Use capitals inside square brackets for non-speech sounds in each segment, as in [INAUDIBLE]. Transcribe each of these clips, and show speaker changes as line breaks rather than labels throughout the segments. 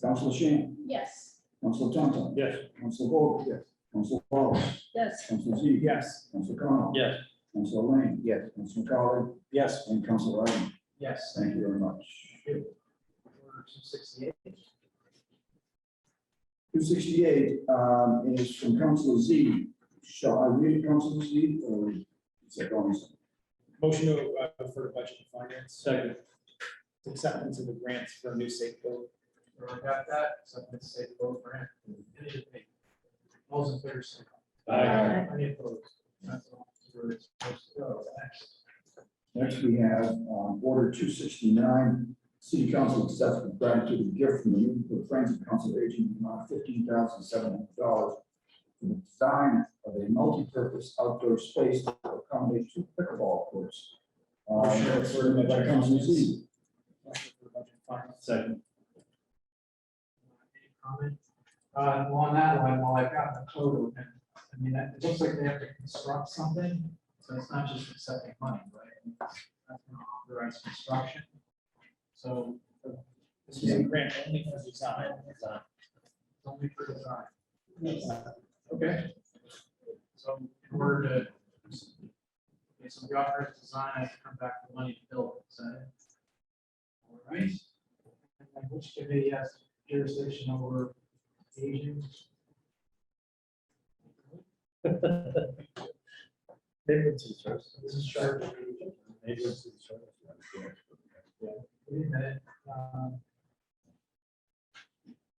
Council Shan,
Yes.
Council Tonto,
Yes.
Council Hope. Yes. Council Wallace,
Yes.
Council Z.
Yes.
Council Con.
Yes.
Council Lane. Yes. Council McCollum
Yes.
and Council Ivan.
Yes.
Thank you very much.
Order 268.
Two sixty-eight um, is from Council Z. Shall I read Council Z or is it going?
Motion to uh, refer to budget and finance. Second. Acceptance of the grants for a new safe build. We already got that, acceptance of safe build grant. Any debate? All those in favor, say aye.
Aye.
Any opposed? That's all. Where it's supposed to go. Next.
Next, we have um, Order two sixty-nine, City Council accepts with gratitude a gift from the Newport Friends of Council Aging in the amount of fifteen thousand seven hundred dollars for the design of a multi-purpose outdoor space to accommodate two pickleball courts. Um, that's written by Council Z.
Motion for budget and finance.
Second.
Any comment? Uh, well, on that one, while I've got the code open, I mean, it looks like they have to construct something, so it's not just accepting money, right? That's gonna authorize construction. So. This is a grant only for design. Only for design. Okay. So in order to. Okay, so the authorized design has to come back with money to build, so. All right. And then which committee has jurisdiction over aging? This is charged. Wait a minute. um,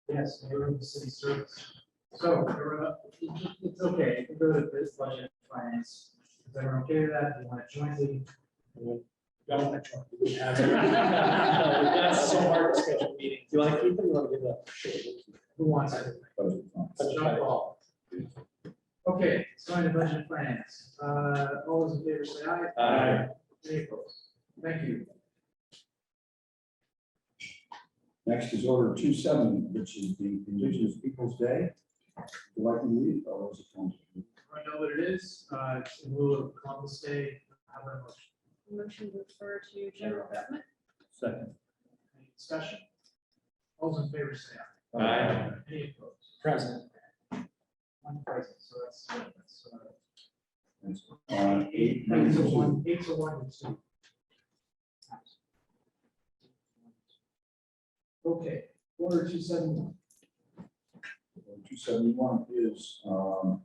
Yes, they were in the city service. So we're up- it's okay, we go to this budget finance. Is everyone okay with that? Do you want to join the? Don't want to join.
[LAUGHS]
That's so
hard to schedule meetings.
Do you want to keep it? or You want to give it up?
Who wants it?
Budget funds.
Jump ball. Okay, so in the budget and finance, uh, all those in favor say aye.
Aye.
Any opposed? Thank you.
Next is Order two seven, which is the Indigenous Peoples' Day. Would like to read, or is it council?
I know what it is, uh, it's in lieu of Columbus Day, have a motion,
Motion to refer to general government?
Second.
any discussion? All those in favor say aye. Any opposed?
Present.
One present, so that's, that's, uh,
That's on eight, nine,
eight to
two.
one, eight to one and two. Okay, order two seven one.
Two seventy-one is, um,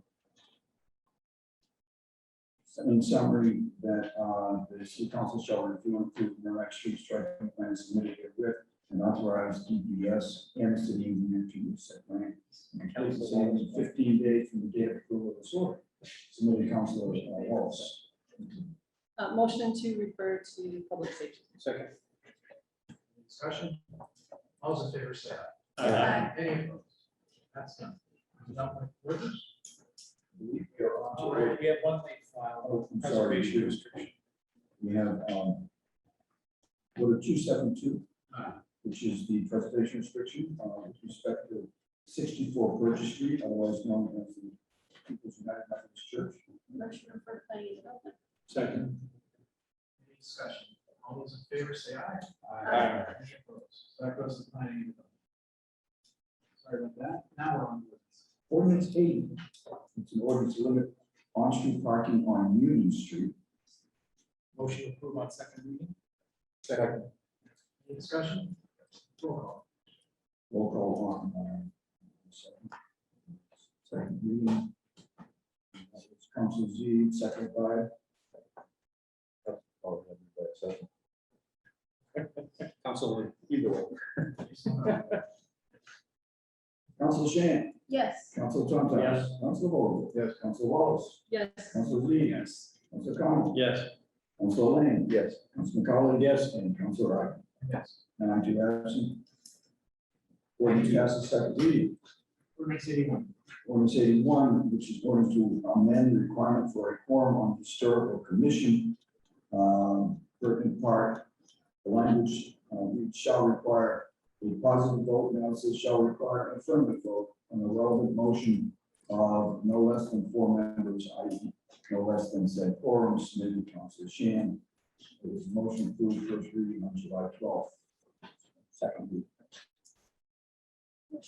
in summary, that, uh, the city council shall review and approve the next street striking plan submitted with and authorize DPS and the city engineer to use said plan. And place the same in fifteen days from the date of approval of this order, submitted to council uh, Wallace.
Uh, motion to refer to public safety?
Second. Discussion? All those in favor say aye.
Aye.
Any opposed? That's done. Not with words?
I believe we are on to
All right, we have one thing filed,
Oh, I'm sorry.
preservation restriction.
We have, um, order two seven two.
Uh,
which is the preservation restriction uh, with respect to sixty-four Burgess Street, otherwise known as the People's United Methodist Church.
Motion to refer to planning and development?
Second.
Any discussion? All those in favor say aye.
Aye.
Any opposed? So that goes to planning. and development. Sorry about that. Now we're on. to this.
Ordinance eighty, it's an ordinance to limit on-street parking on Union Street.
Motion to approve on second reading.
Second.
Any discussion? Roll call.
Roll call on. uh, second- Second reading. It's Council Z, second by.
Council, either way.
Council Shan,
Yes.
Council Tonto.
Yes.
Council Vogel. Yes. Council Wallace,
Yes.
Council Z.
Yes.
Council Con.
Yes.
Council Lane. Yes. Council McCollum. Yes. And Council Ivan.
Yes.
And I do absent. Ordinance passes second reading.
Ordinance eighty-one.
Ordinance eighty-one, which is ordinance to amend the requirement for a quorum on historical commission. um, Pertinent part, the language uh, reads shall require a positive vote, now it says shall require an affirmative vote on the relevant motion of no less than four members, i.e. no less than said quorum submitted to Council Shan. It was motion approved first reading on July twelfth. Second reading.